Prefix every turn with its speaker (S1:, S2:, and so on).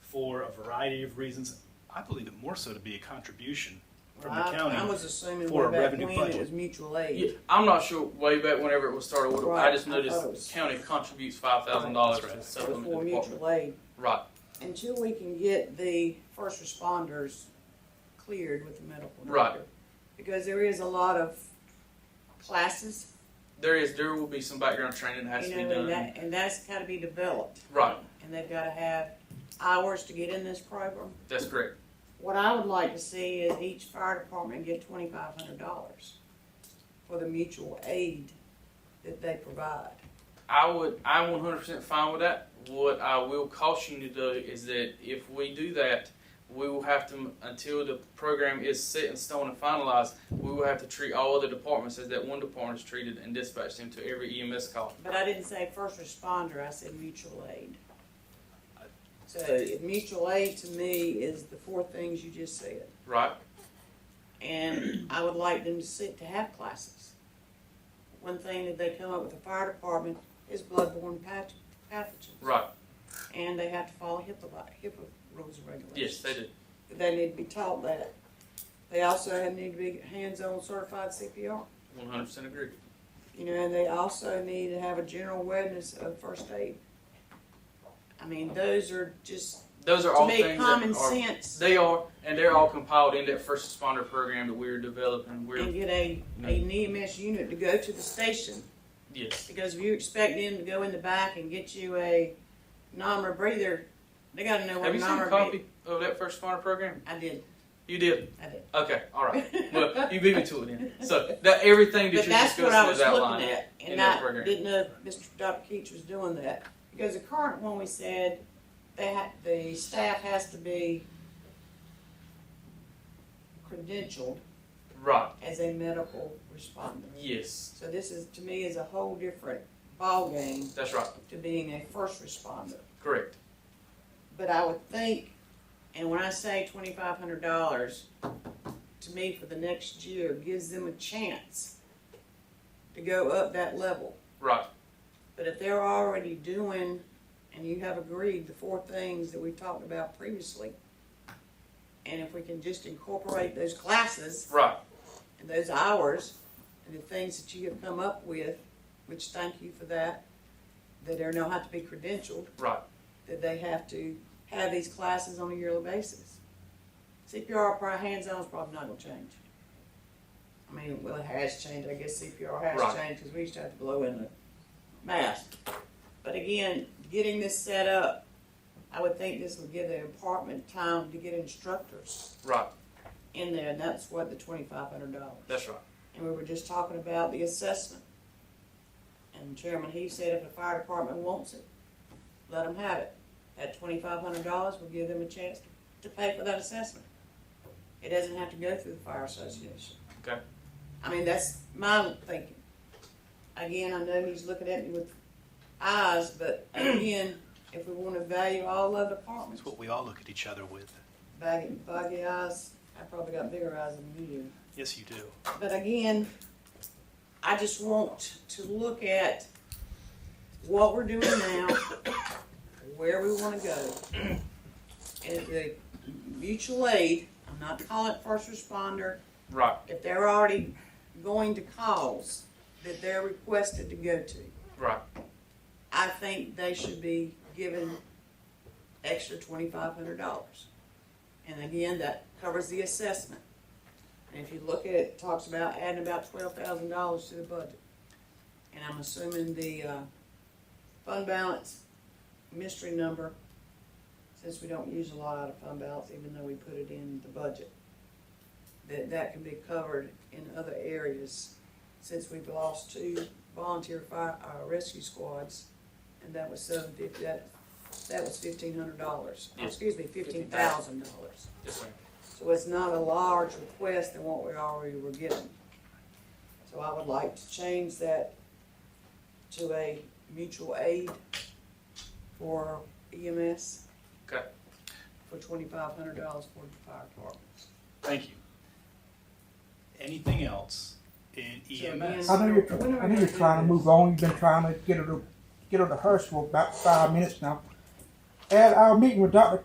S1: for a variety of reasons. I believe it more so to be a contribution from the
S2: I, I
S1: county.
S2: was assuming
S1: for
S2: way
S1: a
S2: back
S1: revenue
S2: when
S1: budget.
S2: it was mutual aid.
S3: Yeah, I'm not sure way back whenever it was started. what- I
S2: Right,
S3: just
S2: I
S3: noticed
S2: thought it
S3: the
S2: was-
S3: county contributes five thousand dollars
S1: Right,
S3: to
S1: that's
S2: It was
S3: supplement
S2: for
S3: the department.
S2: mutual aid.
S3: Right.
S2: Until we can get the first responders cleared with the medical doctor.
S3: Right.
S2: Because there is a lot of classes,
S3: There is there will be some background training that has
S2: you
S3: to be
S2: know,
S3: done.
S2: and that, and that's gotta be developed.
S3: Right.
S2: And they've gotta have hours to get in this program.
S3: That's correct.
S2: What I would like to see is each fire department get twenty-five hundred dollars for the mutual aid that they provide.
S3: I would I'm one hundred percent fine with that. What I will caution you to do is that if we do that, we will have to until the program is set in stone and finalized, we will have to treat all other departments as that one department is treated and dispatch them to every EMS call.
S2: But I didn't say first responder, I said mutual aid. So
S3: They-
S2: mutual aid to me is the four things you just said.
S3: Right?
S2: And I would like them to sit to have classes. One thing that they come up with the fire department is bloodborne path- pathogens.
S3: Right.
S2: And they have to follow HIPAA, li- HIPAA rules and
S3: Yes,
S2: regulations.
S3: they do.
S2: They need to be taught that. They also have- need to be hands-on certified CPR.
S3: One hundred percent agree.
S2: You know, and they also need to have a general awareness of first aid. I mean, those are just,
S3: Those are
S2: to
S3: all
S2: me,
S3: things
S2: common
S3: that are,
S2: sense
S3: They are, and they're all compiled in that first responder program that we're developing. We're
S2: and get a, an EMS unit to go to the station.
S3: yes,
S2: Because if you expect them to go in the back and get you a NOMR breather, they gotta know
S3: Have
S2: what
S3: you seen a
S2: NOMR. be-
S3: copy of that first responder program?
S2: I did,
S3: You did.
S2: I did.
S3: Okay. All right. Well, you beat me to it then. So that everything that
S2: But
S3: you're
S2: that's what I
S3: discussing
S2: was
S3: is outlined.
S2: looking at,
S3: in
S2: and
S3: that
S2: I
S3: program.
S2: didn't know if Mr. Dr. Keach was doing that. Because the current one, we said, they ha the staff has to be credentialed
S3: Right.
S2: as a medical responder.
S3: Yes.
S2: So this is, to me, is a whole different ballgame
S3: That's right.
S2: to being a first responder.
S3: Correct.
S2: But I would think, and when I say twenty-five hundred dollars, to me, for the next year, gives them a chance to go up that level.
S3: Right.
S2: But if they're already doing, and you have agreed, the four things that we talked about previously, and if we can just incorporate those classes
S3: Right.
S2: and those hours and the things that you have come up with, which thank you for that, that they now have to be credentialed,
S3: Right.
S2: that they have to have these classes on a yearly basis. CPR, probably hands-on is probably not gonna change. I mean, well, it has changed, I guess CPR has
S3: Right.
S2: changed, because we used to have to blow in the mask. But again, getting this set up, I would think this would give the department time to get instructors
S3: Right.
S2: in there, and that's what the twenty-five hundred dollars.
S3: That's right.
S2: And we were just talking about the assessment. And Chairman he said if the fire department wants it, let them have it. That twenty-five hundred dollars will give them a chance to pay for that assessment. It doesn't have to go through the fire association.
S3: Okay.
S2: I mean, that's my thinking. Again, I know he's looking at me with eyes, but again, if we wanna value all other departments,
S1: It's what we all look at each other with.
S2: baggy, baggy eyes, I probably got bigger eyes than you do.
S1: Yes, you do.
S2: But again, I just want to look at what we're doing now, where we wanna go. And the mutual aid, I'm not calling it first responder,
S3: Right.
S2: if they're already going to calls that they're requested to go to,
S3: Right.
S2: I think they should be given extra twenty-five hundred dollars. And again, that covers the assessment. And if you look at it, it talks about adding about twelve thousand dollars to the budget. And I'm assuming the, uh, fund balance mystery number, since we don't use a lot out of fund balance, even though we put it in the budget, that that can be covered in other areas, since we've lost two volunteer fire, uh, rescue squads, and that was seven fifty, that, that was fifteen hundred dollars,
S3: Yes.
S2: excuse me, fifteen thousand dollars.
S3: Yes, ma'am.
S2: So it's not a large request than what we already were given. So I would like to change that to a mutual aid for EMS.
S3: Okay.
S2: For twenty-five hundred dollars for the fire department.
S1: Thank you. Anything else in E EMS?
S2: So
S4: I know you're, I know you're trying to move on. You've been trying to get her to get her to hush for about five minutes now. At our meeting with Dr.